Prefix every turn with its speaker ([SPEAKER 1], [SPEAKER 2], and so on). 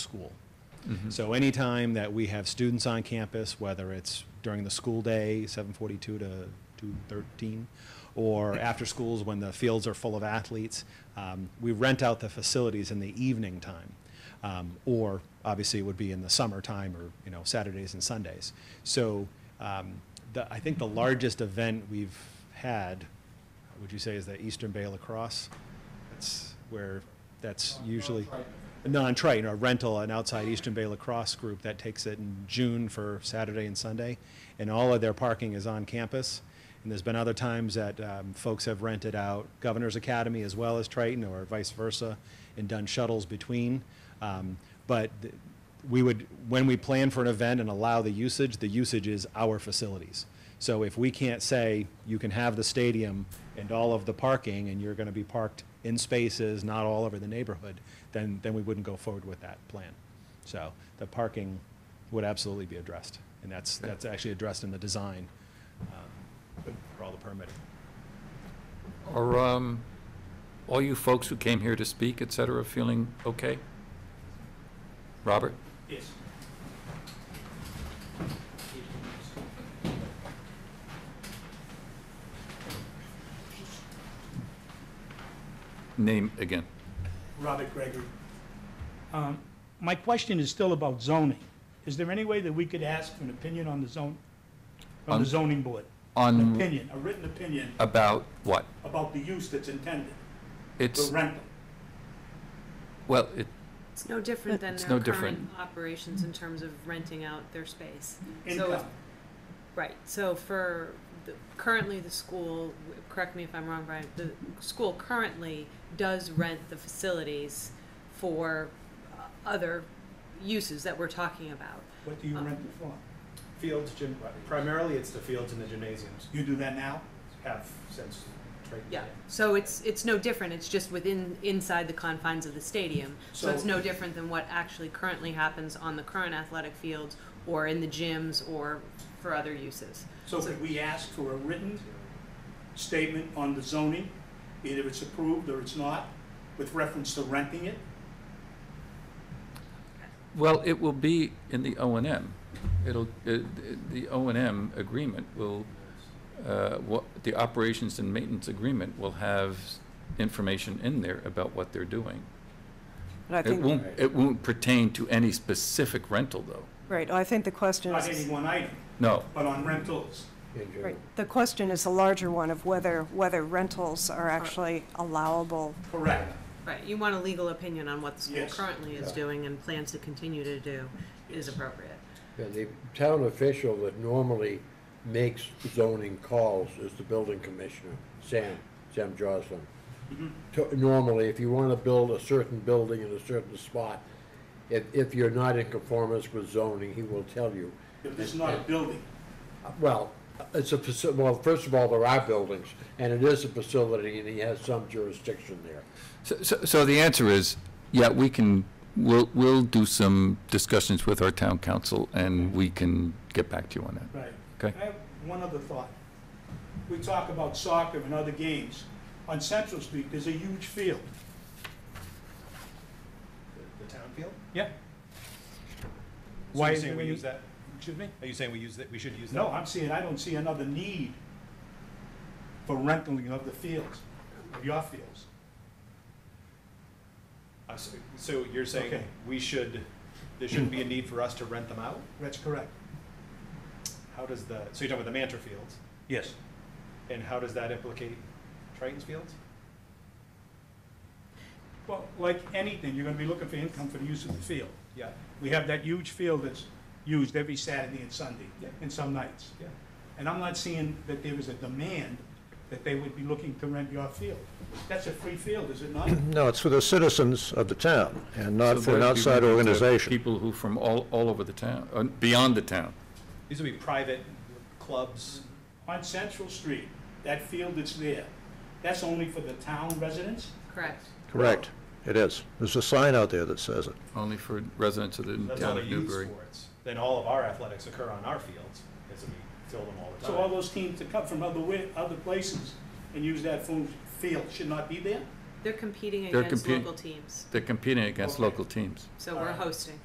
[SPEAKER 1] school. So anytime that we have students on campus, whether it's during the school day, 7:42 to 2:13, or after schools when the fields are full of athletes, um, we rent out the facilities in the evening time. Um, Or, obviously, it would be in the summertime or, you know, Saturdays and Sundays. So um, the, I think the largest event we've had, would you say, is the Eastern Bay lacrosse? That's where, that's usually. Non-Triton, a rental, an outside Eastern Bay lacrosse group that takes it in June for Saturday and Sunday. And all of their parking is on campus. And there's been other times that um, folks have rented out Governor's Academy as well as Triton or vice versa and done shuttles between. Um, But th- we would, when we plan for an event and allow the usage, the usage is our facilities. So if we can't say, you can have the stadium and all of the parking, and you're gonna be parked in spaces, not all over the neighborhood, then, then we wouldn't go forward with that plan. So the parking would absolutely be addressed, and that's, that's actually addressed in the design um, for all the permitting.
[SPEAKER 2] Are um, all you folks who came here to speak, et cetera, feeling okay? Robert? Name again.
[SPEAKER 3] Robert Gregory. Um, My question is still about zoning. Is there any way that we could ask for an opinion on the zone, from
[SPEAKER 2] On- Mm.
[SPEAKER 3] the zoning board? An
[SPEAKER 2] On,
[SPEAKER 3] opinion, a written opinion
[SPEAKER 2] about what?
[SPEAKER 3] about the use that's intended, the
[SPEAKER 2] It's,
[SPEAKER 3] rental?
[SPEAKER 2] well, it,
[SPEAKER 4] It's no different than
[SPEAKER 2] It's
[SPEAKER 4] their
[SPEAKER 2] no different.
[SPEAKER 4] current operations in terms of renting out their space. So, if-
[SPEAKER 3] Income,
[SPEAKER 4] right, so for, the- currently the school, w- correct me if I'm wrong, Brian, the school currently does rent the facilities for uh, other uses that we're talking about.
[SPEAKER 3] what do you rent it for?
[SPEAKER 1] Fields, gym, primarily it's the fields and the gymnasiums
[SPEAKER 3] You do that now?
[SPEAKER 1] have since Triton.
[SPEAKER 4] Yeah, so it's, it's no different, it's just within, inside the confines of the stadium. So it's
[SPEAKER 3] So-
[SPEAKER 4] no different than what actually currently happens on the current athletic fields or in the gyms or for other uses.
[SPEAKER 3] So could we ask for a written statement on the zoning, either it's approved or it's not, with reference to renting it?
[SPEAKER 2] well, it will be in the O and M. It'll, it- the O and M agreement will, uh, what, the operations and maintenance agreement will have information in there about what they're doing.
[SPEAKER 5] And I
[SPEAKER 2] It
[SPEAKER 5] think,
[SPEAKER 2] won't, it won't pertain to any specific rental, though.
[SPEAKER 5] right, I think the question
[SPEAKER 3] Not any
[SPEAKER 5] is,
[SPEAKER 3] one item,
[SPEAKER 2] No,
[SPEAKER 3] but on rentals.
[SPEAKER 5] right, the question is a larger one of whether, whether rentals are actually allowable.
[SPEAKER 3] Correct.
[SPEAKER 4] Right, you want a legal opinion on what the school
[SPEAKER 3] Yes.
[SPEAKER 4] currently is
[SPEAKER 6] Yeah.
[SPEAKER 4] doing and plans to continue to do is appropriate.
[SPEAKER 6] Yeah, the town official that normally makes zoning calls is the building commissioner, Sam, Sam Joslin. To- Normally, if you wanna build a certain building in a certain spot, if, if you're not in conformance with zoning, he will tell you.
[SPEAKER 3] If it's not a building,
[SPEAKER 6] Well, it's a faci, well, first of all, there are buildings, and it is a facility, and he has some jurisdiction there.
[SPEAKER 2] so, so- so the answer is, yeah, we can, we'll, we'll do some discussions with our town council, and we can get back to you on that.
[SPEAKER 3] Right.
[SPEAKER 2] Okay.
[SPEAKER 3] I have one other thought. We talk about soccer and other games. On Central Street, there's a huge field.
[SPEAKER 1] The town field?
[SPEAKER 3] Yeah.
[SPEAKER 1] So
[SPEAKER 3] Why
[SPEAKER 1] you're
[SPEAKER 3] is
[SPEAKER 1] saying
[SPEAKER 3] there
[SPEAKER 1] we
[SPEAKER 3] any-
[SPEAKER 1] use that?
[SPEAKER 3] Excuse me?
[SPEAKER 1] Are you saying we use that, we should use that?
[SPEAKER 3] No, I'm saying I don't see another need for renting of the fields, of your fields.
[SPEAKER 1] I see. Uh, So you're saying
[SPEAKER 3] Okay.
[SPEAKER 1] we should, there shouldn't be a need for us to rent them out?
[SPEAKER 3] That's correct.
[SPEAKER 1] How does the, so you're talking about the Mantra Fields,
[SPEAKER 3] Yes.
[SPEAKER 1] and how does that implicate Triton's Fields?
[SPEAKER 3] Well, like anything, you're gonna be looking for income for the use of the field.
[SPEAKER 1] Yeah,
[SPEAKER 3] We have that huge field that's used every Saturday and Sunday,
[SPEAKER 1] Yeah.
[SPEAKER 3] and some nights.
[SPEAKER 1] yeah.
[SPEAKER 3] And I'm not seeing that there is a demand that they would be looking to rent your field. That's a free field, is it not?
[SPEAKER 7] No, it's for the citizens of the town and not
[SPEAKER 2] So
[SPEAKER 7] for an
[SPEAKER 2] there'd be
[SPEAKER 7] outside
[SPEAKER 2] room for
[SPEAKER 7] organization.
[SPEAKER 2] People who from all, all over the town, uh, beyond the town.
[SPEAKER 1] These would be private clubs.
[SPEAKER 3] On Central Street, that field that's there, that's only for the town residents?
[SPEAKER 4] Correct.
[SPEAKER 7] Correct. It is. There's a sign out there that says it.
[SPEAKER 2] Only for residents of the
[SPEAKER 1] That's all
[SPEAKER 2] town
[SPEAKER 1] the
[SPEAKER 2] of
[SPEAKER 1] youth
[SPEAKER 2] Newbury.
[SPEAKER 1] sports. Then all of our athletics occur on our fields, because we fill them all the
[SPEAKER 3] So all
[SPEAKER 1] time.
[SPEAKER 3] those teams that come from other, wi- other places and use that fu- field should not be there?
[SPEAKER 4] They're competing
[SPEAKER 2] They're
[SPEAKER 4] against
[SPEAKER 2] compete-
[SPEAKER 4] local teams,
[SPEAKER 2] They're competing against
[SPEAKER 3] Okay.
[SPEAKER 2] local teams.
[SPEAKER 4] so we're
[SPEAKER 3] Alright.
[SPEAKER 4] hosting.